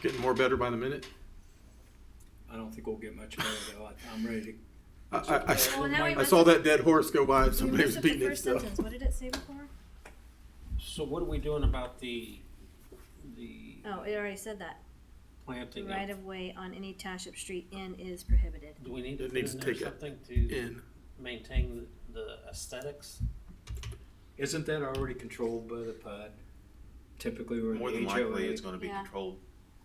Getting more better by the minute? I don't think we'll get much better though. I- I'm ready. I, I, Well, now I, we I messed saw up- that dead horse go by and You somebody was messed up the beating it first stuff. sentence. What did it say before? So what are we doing about the, the Oh, it already said that. The planting? of- right of way on any township street in is prohibited. Do we need to It put needs in to there take it something to In, maintain the aesthetics? Isn't that already controlled by the PUD? Typically, we're More in than the likely, HOA. it's gonna be Yeah. controlled.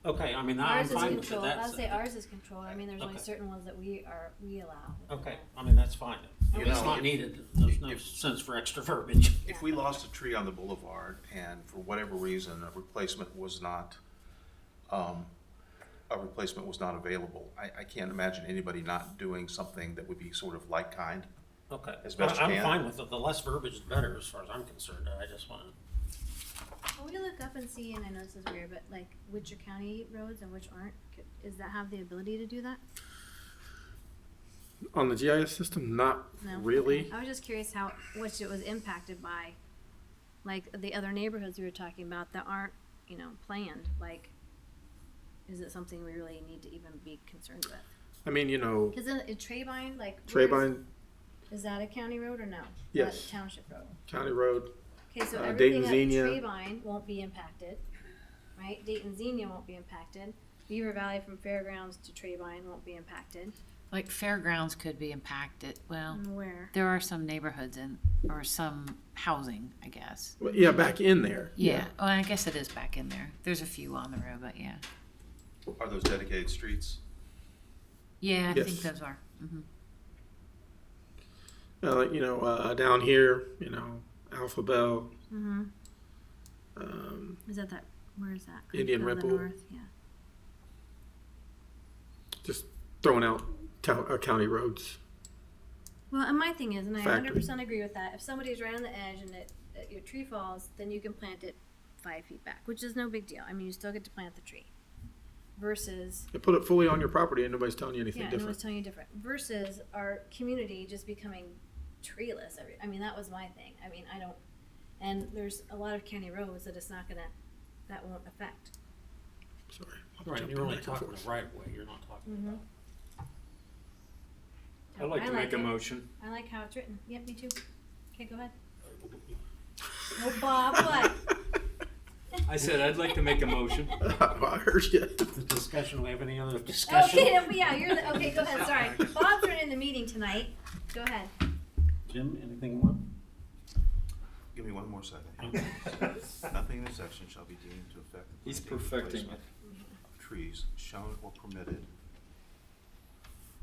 Okay, I mean, I'm Ours is fine with that. controlled. I'll say so- ours is controlled. I mean, there's only Okay. certain ones that we are, we allow. Okay, I mean, that's fine. You It's know, not if- needed. There's no if- sense for extra verbiage. If we lost a tree on the boulevard and for whatever reason, a replacement was not, um, a replacement was not available, I, I can't imagine anybody not doing something that would be sort of like kind. Okay. As best you I- I'm can. fine with it. The less verbiage, the better, as far as I'm concerned. I just want, Can we look up and see, and I know this is weird, but like which are county roads and which aren't? C- Is that have the ability to do that? on the GIS system, not No. really. I was just curious how, which it was impacted by, like the other neighborhoods we were talking about that aren't, you know, planned, like. Is it something we really need to even be concerned with? I mean, you know, Cause in, in Traybine, like. where's- Traybine Is that a county road or no? Yes. That's a Township road. County Road, Okay, so Uh, everything up Dayton, Xenia. Treebine won't be impacted, right? Dayton Xenia won't be impacted. Beaver Valley from Fairgrounds to Treebine won't be impacted. Like fairgrounds could be impacted, well, Mm. And where? there are some neighborhoods in, or some housing, I guess. Well, yeah, back in there. Yeah, well, I guess it is back in there, there's a few on the road, but yeah, Are those dedicated streets? yeah, I think Yes. those are, mhm. Uh, like, you know, uh, down here, you know, Alpha Bell, Mm-hmm. um, Is that that, where is that? Indian Oh, the Ripple. north, Yeah. just throwing out town, uh, county roads. Well, and my thing is, and I Factory. hundred percent agree with that, if somebody's right on the edge and it, it- your tree falls, then you can plant it five feet back, which is no big deal. I mean, you still get to plant the tree. Versus You put it fully on your property and nobody's telling you anything Yeah, no one's different. telling you different. Versus our community just becoming treeless. Every, I mean, that was my thing. I mean, I don't, and there's a lot of county roads that it's not gonna, that won't affect. Sorry. I'm right, jumping you're only back and talking forth. the right way. You're not talking Mm-hmm. about. I'd like to make a it. motion. I like how it's written. Yep, me too. Okay, go ahead. Well, Bob, what? I said I'd like to make a motion. I heard you. The discussion, we have any other discussion? Okay, Oh, yeah, you're the, okay, go ahead, sorry. Bob's running the meeting tonight. Go ahead. Jim, anything more? Give me one more second. Okay. Nothing in this section shall be deemed to affect. the He's planting or perfecting placement of Trees shown or permitted.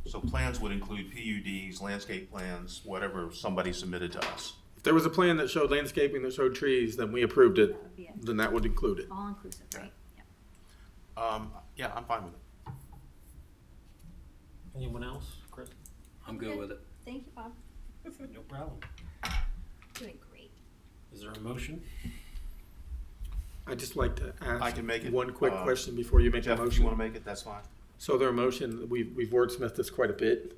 So plans would include PUDs, landscape plans, whatever somebody submitted to us. If there was a plan that showed landscaping that showed trees, then we approved it, That would be it. then that would include it. All inclusive, right? Yep. Um, yeah, I'm fine with it. Anyone else? Chris? I'm good with it. Thank you, Bob. No problem. Doing great. Is there a motion? I'd just like to ask I can make it, one quick uh, question before you make a Jeff, if motion. you wanna make it, that's fine. So their motion, we've, we've wordsmithed this quite a bit.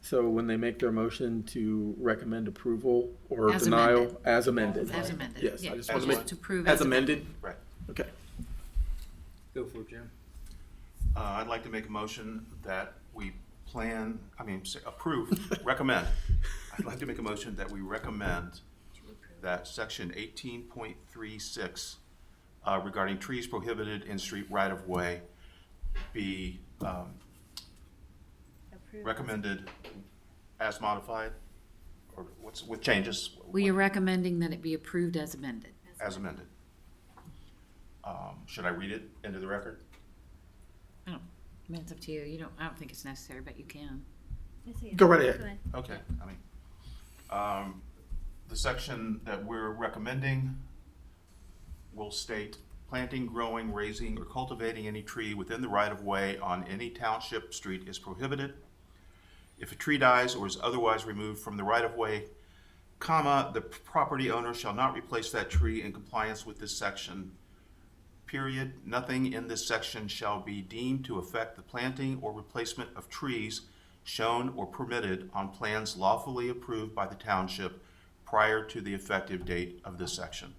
So when they make their motion to recommend approval or As denial amended. as amended. as amended, Yes, yeah. I just wanna make- to prove As amended? Right. Okay. Go for it, Jim. Uh, I'd like to make a motion that we plan, I mean, say approve, recommend. I'd like to make a motion that we recommend that section eighteen point three six uh, regarding trees prohibited in street right-of-way be, um, Approved. recommended as modified, or what's, with changes, We are recommending that it be approved as amended. as amended. Um, should I read it into the record? I don't, I mean, it's up to you, you don't, I don't think it's necessary, but you can. I see it. Go right ahead. Okay, I mean, um, the section that we're recommending will state planting, growing, raising, or cultivating any tree within the right of way on any township street is prohibited. If a tree dies or is otherwise removed from the right of way, comma, the property owner shall not replace that tree in compliance with this section. Period. Nothing in this section shall be deemed to affect the planting or replacement of trees shown or permitted on plans lawfully approved by the township prior to the effective date of this section.